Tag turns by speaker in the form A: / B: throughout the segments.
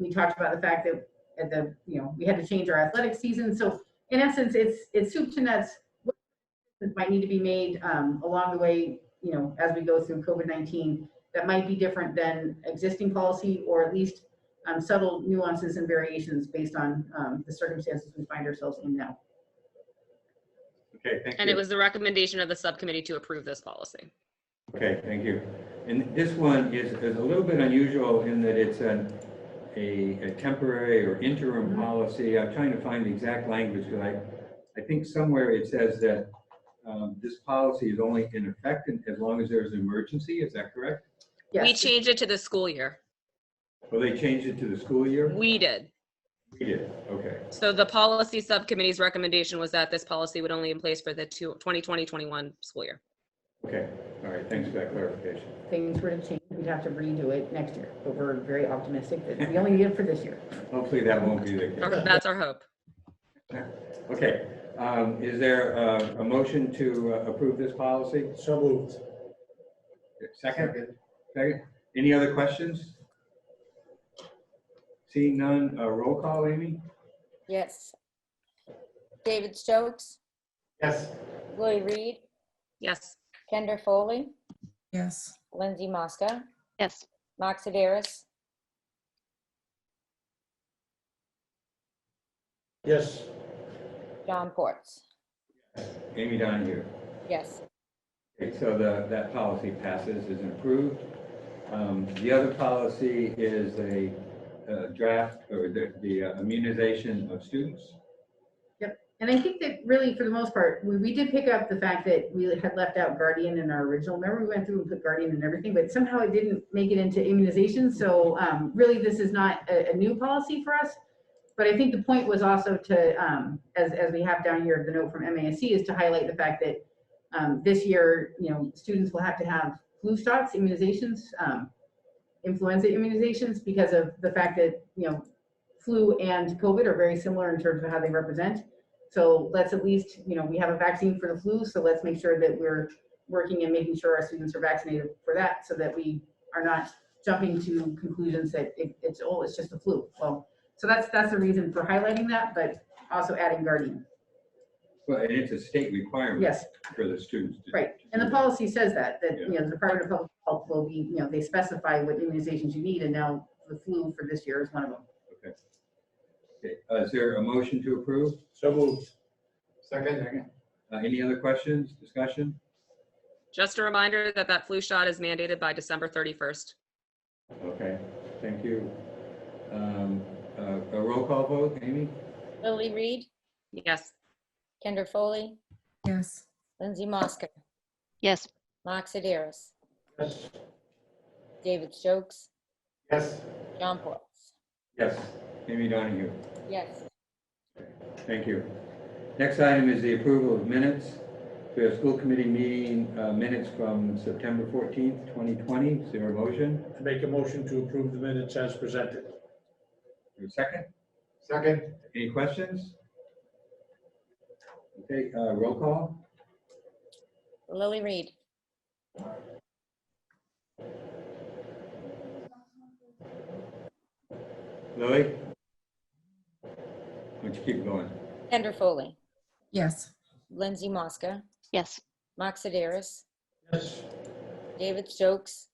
A: we talked about the fact that at the, you know, we had to change our athletic season. So in essence, it's, it's soup to nuts. What Might need to be made um, along the way, you know, as we go through COVID-19 that might be different than existing policy or at least um, subtle nuances and variations based on um, the circumstances we find ourselves in now.
B: Okay, thank you.
C: And it was the recommendation of the subcommittee to approve this policy.
B: Okay, thank you. And this one is, is a little bit unusual in that it's an, a, a temporary or interim
C: Mm-hmm.
A: Mhm.
B: policy. I'm trying to find the exact language, because I, I think somewhere it says that um, this policy is only in effect in- as long as there's an emergency, is that correct?
C: We
A: Yes,
C: changed it to the school year.
B: Or they changed it to the school year?
C: We did.
B: We did, okay.
C: So the policy subcommittee's recommendation was that this policy would only in place for the two- 2020-21 school year.
B: Okay, all right, thanks for that clarification.
A: if things were to change, we'd have to redo it next year, but we're very optimistic that we only need it for this year.
B: Hopefully that won't be the case.
C: Our- That's our hope.
B: Okay, um, is there uh, a motion to uh, approve this policy?
D: So moved.
B: Second? Second. Any other questions? Seeing none, uh, roll call, Amy?
E: Yes. David Stokes,
D: Yes.
E: Lori Reed,
C: Yes.
E: Kendra Foley,
F: Yes.
E: Lindsay Mosca,
G: Yes.
E: Max Ediris,
D: Yes.
E: John Ports.
B: Amy Donahue.
E: Yes.
B: Okay, so the, that policy passes, is approved. Um, The other policy is a uh, draft, or the the uh, immunization of students.
A: And I think that really, for the most part, we, we did pick up the fact that we had left out guardian in our original. Remember, we went through and put guardian and everything, but somehow it didn't make it into immunization. So um, really, this is not a, a new policy for us. But I think the point was also to, um, as, as we have down here, the note from MASC is to highlight the fact that um, this year, you know, students will have to have flu shots, immunizations, um, influenza immunizations because of the fact that, you know, flu and COVID are very similar in terms of how they represent. So let's at least, you know, we have a vaccine for the flu, so let's make sure that we're working and making sure our students are vaccinated for that so that we are not jumping to conclusions that it, it's, oh, it's just the flu. Well, so that's, that's the reason for highlighting that, but also adding guardian.
B: Well, and it's a state requirement
A: Yes,
B: for the students. to-
A: right. And the policy says that, that, you know, the Department of Public Health will be, you know, they specify what immunizations you need and now the flu for this year is one of them.
B: Okay, uh, Is there a motion to approve?
D: So moved. Second.
B: Uh, Any other questions, discussion?
C: Just a reminder that that flu shot is mandated by December 31st.
B: Okay, thank you. Um, uh, A roll call vote, Amy?
E: Lily Reed,
C: Yes.
E: Kendra Foley,
F: Yes.
E: Lindsay Mosca,
G: Yes.
E: Max Ediris,
D: Yes.
E: David Stokes,
D: Yes.
E: John Ports.
B: Yes. Amy Donahue?
E: Yes.
B: Thank you. Next item is the approval of minutes. We have school committee meeting uh, minutes from September 14th, 2020. Is there a motion?
D: Make a motion to approve the minutes as presented.
B: Is there a Second?
D: Second.
B: Any questions? Okay, uh, roll call?
E: Lily Reed,
B: Lily? Why don't you keep going?
E: Kendra Foley,
F: Yes.
E: Lindsay Mosca,
G: Yes.
E: Max Ediris,
D: Yes.
E: David Stokes,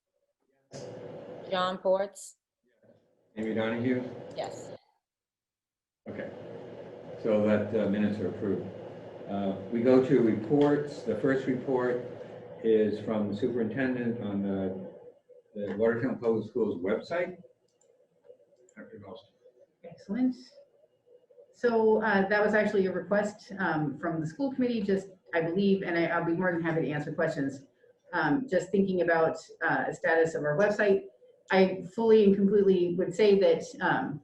E: John Ports.
B: Amy Donahue?
E: Yes.
B: Okay. So that uh, minutes are approved. Uh, We go to reports. The first report is from the superintendent on the the Watertown Public Schools website. Dr. Ralston.
A: Excellent. So uh, that was actually a request um, from the school committee, just, I believe, and I- I'll be more than happy to answer questions. Um, Just thinking about uh, the status of our website, I fully and completely would say that um,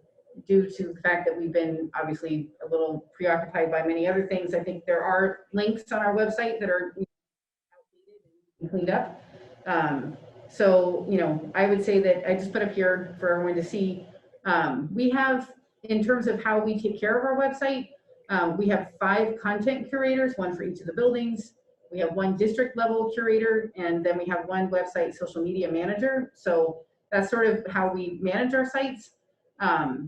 A: due to the fact that we've been obviously a little preoccupied by many other things, I think there are links on our website that are cleaned up. Um, So, you know, I would say that I just put up here for everyone to see um, we have, in terms of how we take care of our website, um, we have five content curators, one for each of the buildings. We have one district level curator, and then we have one website social media manager. So that's sort of how we manage our sites. Um,